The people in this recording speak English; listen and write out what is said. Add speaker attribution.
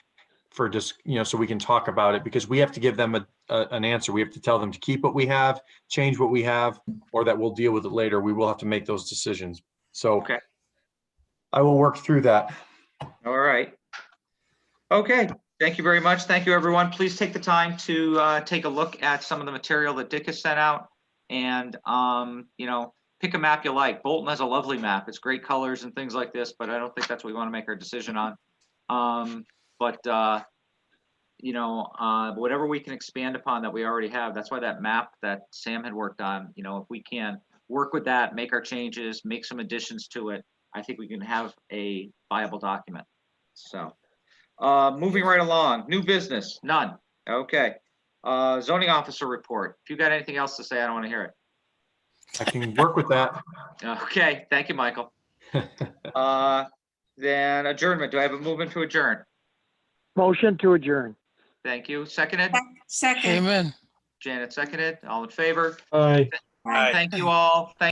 Speaker 1: for just, you know, so we can talk about it because we have to give them a, a- an answer. We have to tell them to keep what we have, change what we have, or that we'll deal with it later. We will have to make those decisions. So.
Speaker 2: Okay.
Speaker 1: I will work through that.
Speaker 2: All right. Okay, thank you very much. Thank you, everyone. Please take the time to uh, take a look at some of the material that Dick has sent out. And, um, you know, pick a map you like. Bolton has a lovely map. It's great colors and things like this, but I don't think that's what we want to make our decision on. Um, But, uh, you know, uh, whatever we can expand upon that we already have, that's why that map that Sam had worked on, you know, if we can work with that, make our changes, make some additions to it, I think we can have a viable document. So, uh, moving right along, new business, none. Okay. Uh, zoning officer report. If you got anything else to say, I don't want to hear it.
Speaker 1: I can work with that.
Speaker 2: Okay, thank you, Michael. Uh, then adjournment. Do I have a movement to adjourn?
Speaker 3: Motion to adjourn.
Speaker 2: Thank you. Seconded.
Speaker 4: Second.
Speaker 5: Amen.
Speaker 2: Janet seconded. All in favor?
Speaker 1: Aye.
Speaker 4: Aye.
Speaker 2: Thank you all. Thank